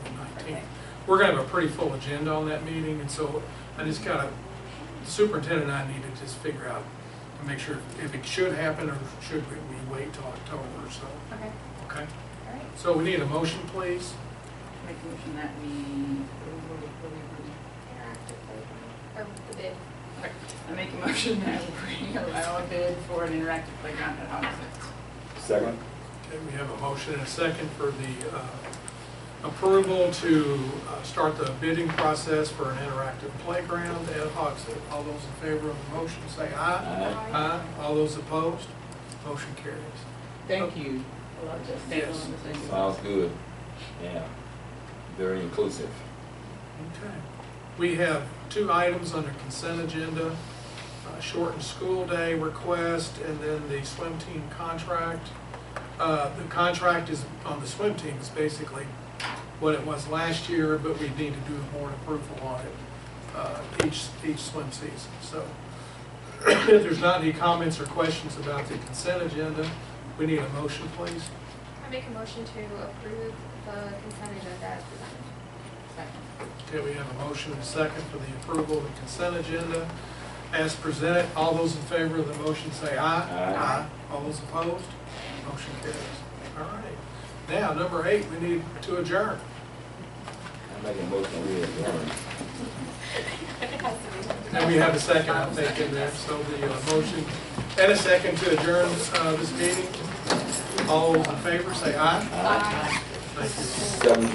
meeting. We're gonna have a pretty full agenda on that meeting, and so I just gotta, superintendent and I need to just figure out and make sure if it should happen or should we we wait till October, so, Okay, okay? all right. So we need a motion, please. Make a motion that we, what do we- what do we want? Interactive playground, or the bid. Okay, I make a motion that we allow a bid for an interactive playground at Hog Six. Second? Okay, we have a motion and a second for the uh, approval to uh, start the bidding process for an interactive playground at Hogsett. All those in favor of the motion, say aye. Aye. All those opposed, motion carries. Thank you. Yes. Sounds good. Yeah. Very inclusive. Okay. We have two items under consent agenda, uh, shortened school day request, and then the swim team contract. Uh, The contract is, on the swim team is basically what it was last year, but we need to do a board approval on it uh, each, each swim season. So if there's not any comments or questions about the consent agenda, we need a motion, please. I make a motion to approve the consent agenda as presented. Okay, we have a motion and a second for the approval of the consent agenda as presented. All those in favor of the motion say aye. Aye. All those opposed? Motion carries. All right. Now, number eight, we need to adjourn. I make a motion we adjourn. It has to be. And we have a second, I think, in there, so the uh, motion and a second to adjourn uh, this meeting. All those in favor say aye. Thank you. Seven